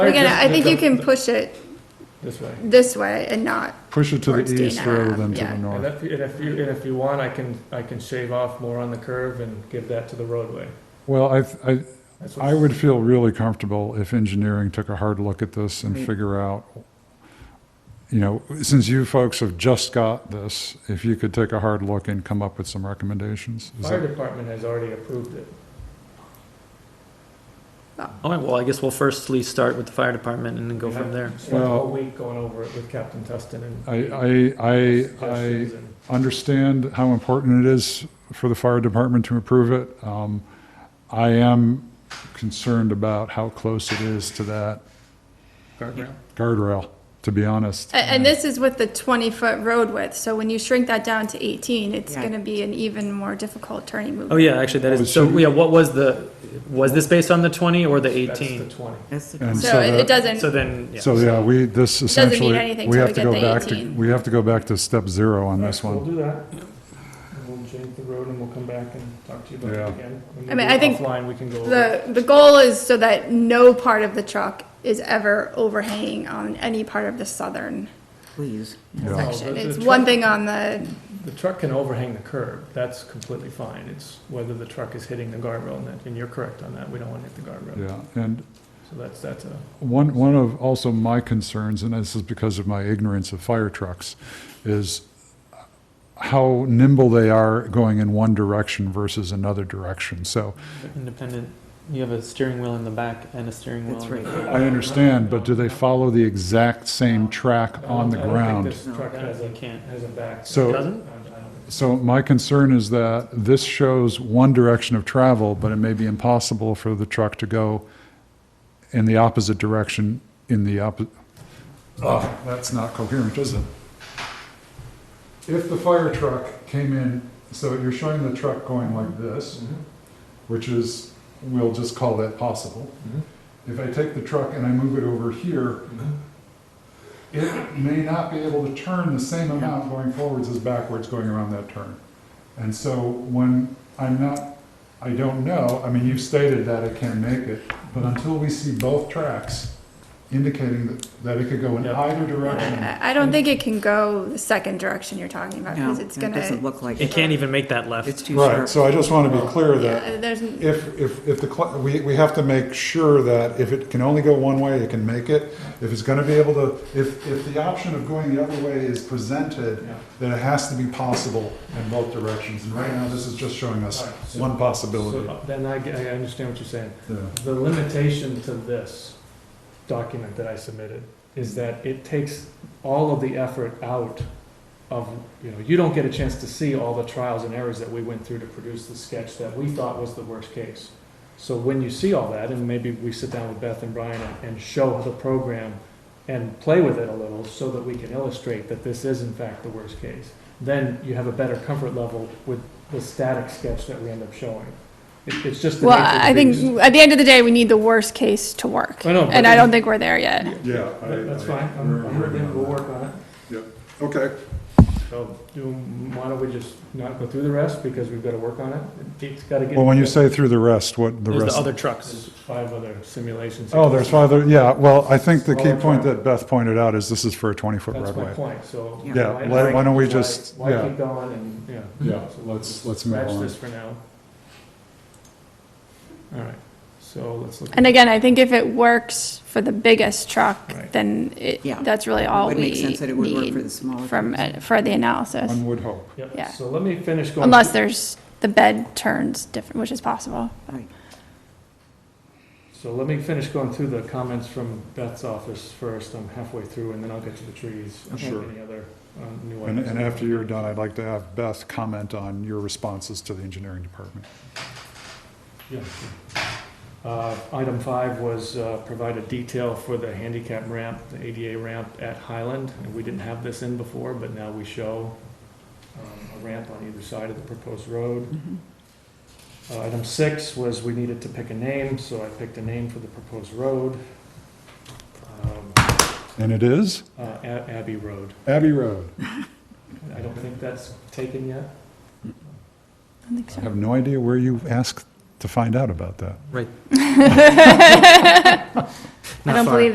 Again, I think you can push it This way. this way and not, Push it to Towards the Dana east rather than to Ave, yeah. the And north. if, and if you, and if you want, I can, I can shave off more on the curve and give that to the roadway. Well, I, th- I, That's what- I would feel really comfortable if engineering took a hard look at this and Mm. Right. figure out, you know, since you folks have just got this, if you could take a hard look and come up with some recommendations. Is Fire that- department has already approved it. All right, well, I guess we'll firstly start with the fire deparment and then go from there. Spent a whole Well- week going over it with Captain Tustin and. I, I, I, I suggestions and- understand how important it is for the fire department to improve it. Um, I am concerned about how close it is to that Guardrail. guardrail, to be honest. a- and this is with the 20-foot road width, so when you shrink that down to 18, it's Yeah. going to be an even more difficult turning Oh, movement. yeah, actually, that is, so, yeah, what was the, was this based on the twenty or the That's the eighteen? twenty. That's the And problem. So it it So doesn't, then, yeah. So, yeah, we, this Doesn't mean essentially, anything we till have we to get go the back to, 18. we have to go back to step zero on this Alright, one. We'll do that. And We'll change the road and we'll come back and talk to you about it Yeah. again. When I we mean, do I think Offline, we can go over. it. the, the goal is so that no part of the truck is ever overhanging on any part of the southern Please. Yeah. No, section. the- the It's truck- one thing on the, The truck can overhang the curb, that's completely fine, it's whether the truck is hitting the guardrail, and that, and you're correct on that, we don't want to hit the guardrail. Yeah, and So that's, that's a, one, one of also my concerns, and this is because of my ignorance of fire trucks, is how nimble they are going in one direction versus another direction. So Independent, you have a steering wheel in the back and a steering wheel. That's in the right. I understand, but do they follow the exact same track on the I don't think ground? this No, truck that has a- you can't. Has a back. So- Doesn't? I don't- I don't- So my concern is that this shows one direction of travel, but it may be impossible for the truck to go in the opposite direction in the opposite. Oh, that's not coherent, is it? If the fire truck came in, so you're showing the truck going like this, Mhm, Mm-hmm. which is, we'll just call that possible. mhm, If I take the truck and I move it over here, mhm. it may not be able to turn the same amount going forwards as backwards going around that turn. And so when I'm not, I don't know, I mean, you've stated that it can make it, but until we see both tracks indicating that, that it could go in Yeah. either direction. I I don't think it can go the second direction you're talking about, No, because it's it going doesn't to, look like It it. can't even make that It's left. too Right, sharp. so I just want to be clear that there's, n- if, if, if the, cl- we, we have to make sure that if it can only go one way, it can make it. If it's gonna be able to, if, if the option of going the other way is presented, Yeah. that it has to be possible in both directions. And right now, this is just showing us Alright, so- one possibility. So, uh, Then I, I understand what you're saying. Yeah. The limitation to this document that I submitted is that it takes all of the effort out of, you know, you don't get a chance to see all the trials and errors that we went through to produce the sketch that we thought was the worst case. So when you see all that, and maybe we sit down with Beth and Brian and- and show the program and play with it a little so that we can illustrate that this is in fact the worst case, then you have a better comfort level with the static sketch that we end up showing. It- It's just the well, nature of the I beast. think, at the end of the day, we need the worst case to work. I know, but And I then- don't think we're there yet. Yeah. That- That's fine, I'm, I'm with you. we'll work on it. Okay. So, do, why don't we just not go through the rest, because we've gotta work on it? It's gotta get. Well, when you say through the rest, what the There's the rest? other trucks. There's Five other simulations. Oh, there's five, other- yeah, well, I think the key Smaller point truck. that Beth pointed out is this is for a 20-foot That's my roadway. point, so. Yeah. Yeah, why- why don't we just- Why yeah. keep going and, yeah. Yeah, So let's, let's move Scratch on. this for now. All right, so let's look. And at- again, I think if it works for the biggest truck, Right. then it, Yeah. that's really all It would make we sense that it would work for need the smaller. from, trucks. it- for the analysis. One would hope. Yep, yeah. so let me finish going. Unless there's, the bed turns different, which is possible. Right. So let me finish going through the comments from Beth's office first, I'm halfway through, and then I'll get to the trees. and Sure. Any other, uh new And, items. and after you're done, I'd like to have Beth comment on your responses to the engineering department. Yeah. Uh, Item five was uh, provide a detail for the handicap ramp, the ADA ramp at Highland. And we didn't have this in before, but now we show um, a ramp on either side of the proposed road. Mhm. Uh, Item six was we needed to pick a name, so I picked a name for the proposed road, um, And it is uh, A- Abbey Road. Abbey Road. I don't think that's taken yet. I don't think I so. have no idea where you asked to find out about that. Right. I Not don't far. believe